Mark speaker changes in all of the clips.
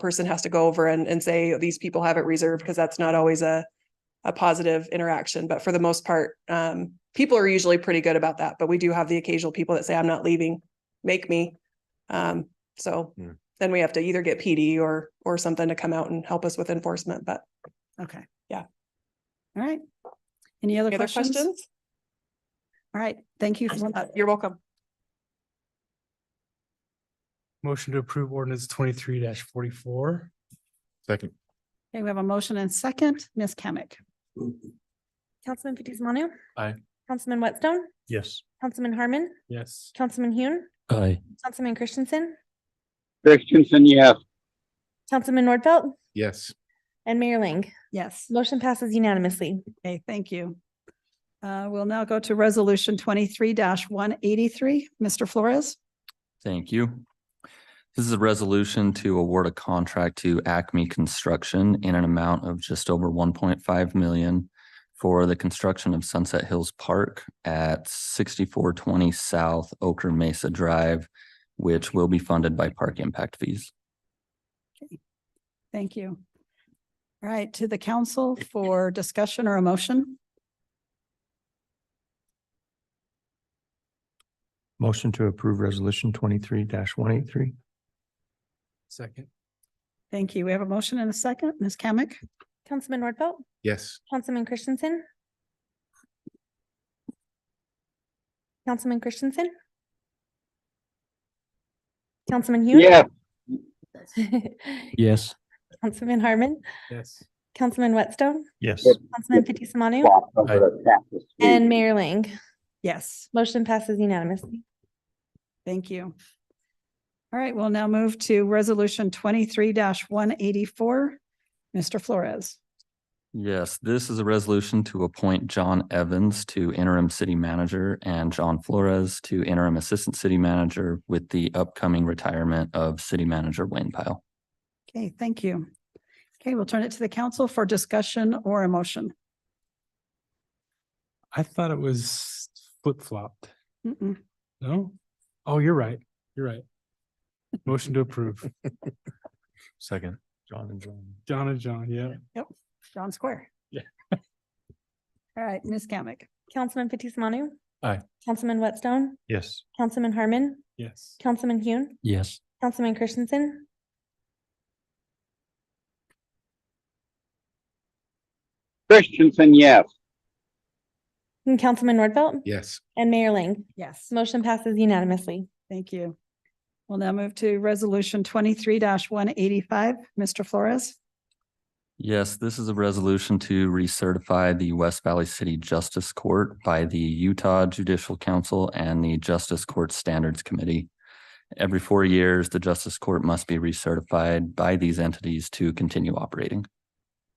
Speaker 1: person has to go over and, and say, these people have it reserved, because that's not always a, a positive interaction. But for the most part, um, people are usually pretty good about that, but we do have the occasional people that say, I'm not leaving, make me. Um, so
Speaker 2: Hmm.
Speaker 1: then we have to either get PD or, or something to come out and help us with enforcement, but
Speaker 3: Okay.
Speaker 1: Yeah.
Speaker 3: All right. Any other
Speaker 1: any other
Speaker 3: questions? All
Speaker 1: questions? Uh,
Speaker 3: right, thank you. for that.
Speaker 1: You're welcome.
Speaker 4: Motion to approve ordinance twenty-three forty-four.
Speaker 2: Second.
Speaker 3: Okay, we have a motion and second, Ms. Kamic.
Speaker 5: Councilman Fitzie Umanu.
Speaker 2: Aye.
Speaker 5: Councilman Whitstone,
Speaker 4: Yes.
Speaker 5: Councilman Harmon,
Speaker 4: Yes.
Speaker 5: Councilman Hune,
Speaker 6: Aye.
Speaker 5: Councilman Christensen,
Speaker 7: Christensen, yes.
Speaker 5: Councilman Nordfelt,
Speaker 2: Yes.
Speaker 5: and Mayor Ling.
Speaker 3: Yes.
Speaker 5: Motion passes unanimously.
Speaker 3: Okay, thank you. Uh, we'll now go to resolution twenty-three one eighty-three. Mr. Flores.
Speaker 6: Thank you. This is a resolution to award a contract to Acme Construction in an amount of just over one point five million for the construction of Sunset Hills Park at sixty-four twenty South Oker Mesa Drive, which will be funded by park impact fees.
Speaker 3: Thank you. All right, to the council for discussion or a motion.
Speaker 8: Motion to approve resolution twenty-three one eight three.
Speaker 4: Second.
Speaker 3: Thank you. We have a motion and a second, Ms. Kamic.
Speaker 5: Councilman Nordfelt,
Speaker 2: Yes.
Speaker 5: Councilman Christensen. Councilman Christensen. Councilman Hune.
Speaker 7: Yes,
Speaker 8: Yes.
Speaker 5: Councilman Harmon,
Speaker 4: Yes.
Speaker 5: Councilman Whitstone,
Speaker 8: Yes.
Speaker 5: Councilman Fitzie Umanu, and
Speaker 7: And
Speaker 5: Mayor Ling.
Speaker 3: Yes.
Speaker 5: Motion passes unanimously.
Speaker 3: Thank you. All right, we'll now move to resolution twenty-three one eighty-four. Mr. Flores.
Speaker 6: Yes, this is a resolution to appoint John Evans to interim city manager and John Flores to interim assistant city manager with the upcoming retirement of city manager Wayne Pyle.
Speaker 3: Okay, thank you. Okay, we'll turn it to the council for discussion or a motion.
Speaker 4: I thought it was flip-flopped.
Speaker 3: Mm-mm.
Speaker 4: No? Oh, you're right. You're right. Motion to approve.
Speaker 2: Second.
Speaker 8: John and John.
Speaker 4: John and John, yeah.
Speaker 3: John Square.
Speaker 4: Yeah.
Speaker 3: All right, Ms. Kamic.
Speaker 5: Councilman Fitzie Umanu.
Speaker 2: Aye.
Speaker 5: Councilman Whitstone,
Speaker 8: Yes.
Speaker 5: Councilman Harmon,
Speaker 4: Yes.
Speaker 5: Councilman Hune,
Speaker 8: Yes.
Speaker 5: Councilman Christensen,
Speaker 7: Christensen, yes.
Speaker 5: and Councilman Nordfelt,
Speaker 2: Yes.
Speaker 5: and Mayor Ling.
Speaker 3: Yes.
Speaker 5: Motion passes unanimously.
Speaker 3: Thank you. We'll now move to resolution twenty-three one eighty-five. Mr. Flores.
Speaker 6: Yes, this is a resolution to recertify the West Valley City Justice Court by the Utah Judicial Council and the Justice Court Standards Committee. Every four years, the Justice Court must be recertified by these entities to continue operating.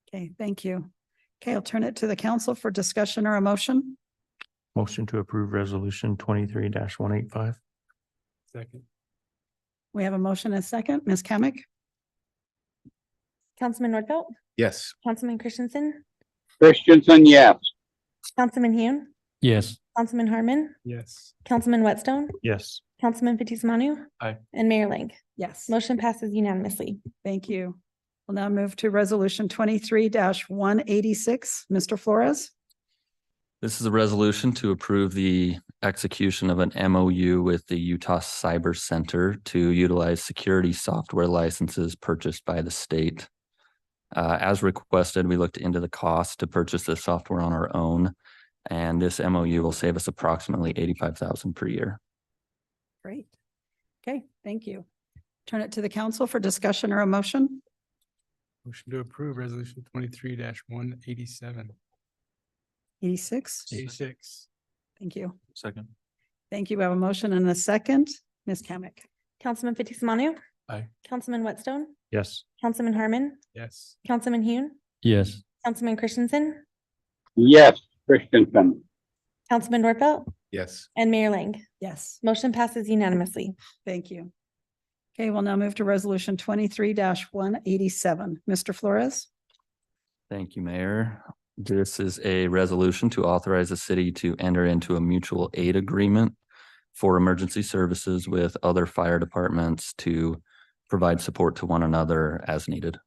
Speaker 3: Okay, thank you. Okay, I'll turn it to the council for discussion or a motion.
Speaker 8: Motion to approve resolution twenty-three one eight five.
Speaker 4: Second.
Speaker 3: We have a motion and a second. Ms. Kamic.
Speaker 5: Councilman Nordfelt,
Speaker 2: Yes.
Speaker 5: Councilman Christensen,
Speaker 7: Christensen, yes.
Speaker 5: Councilman Hune,
Speaker 8: Yes.
Speaker 5: Councilman Harmon,
Speaker 4: Yes.
Speaker 5: Councilman Whitstone,
Speaker 8: Yes.
Speaker 5: Councilman Fitzie Umanu.
Speaker 2: Aye.
Speaker 5: And Mayor Ling.
Speaker 3: Yes.
Speaker 5: Motion passes unanimously.
Speaker 3: Thank you. We'll now move to resolution twenty-three one eighty-six. Mr. Flores.
Speaker 6: This is a resolution to approve the execution of an MOU with the Utah Cyber Center to utilize security software licenses purchased by the state. Uh, as requested, we looked into the cost to purchase the software on our own, and this MOU will save us approximately eighty-five thousand per year.
Speaker 3: Great. Okay, thank you. Turn it to the council for discussion or a motion.
Speaker 4: Motion to approve resolution twenty-three one eighty-seven.
Speaker 3: Eighty-six.
Speaker 4: Eighty-six.
Speaker 3: Thank you.
Speaker 2: Second.
Speaker 3: Thank you. We have a motion and a second. Ms. Kamic.
Speaker 5: Councilman Fitzie Umanu.
Speaker 2: Aye.
Speaker 5: Councilman Whitstone,
Speaker 8: Yes.
Speaker 5: Councilman Harmon,
Speaker 4: Yes.
Speaker 5: Councilman Hune,
Speaker 8: Yes.
Speaker 5: Councilman Christensen,
Speaker 7: Yes, Christensen.
Speaker 5: Councilman Nordfelt,
Speaker 2: Yes.
Speaker 5: and Mayor Ling.
Speaker 3: Yes,
Speaker 5: Motion passes unanimously.
Speaker 3: thank you. Okay, we'll now move to resolution twenty-three one eighty-seven. Mr. Flores.
Speaker 6: Thank you, Mayor. This is a resolution to authorize the city to enter into a mutual aid agreement for emergency services with other fire departments to provide support to one another as needed.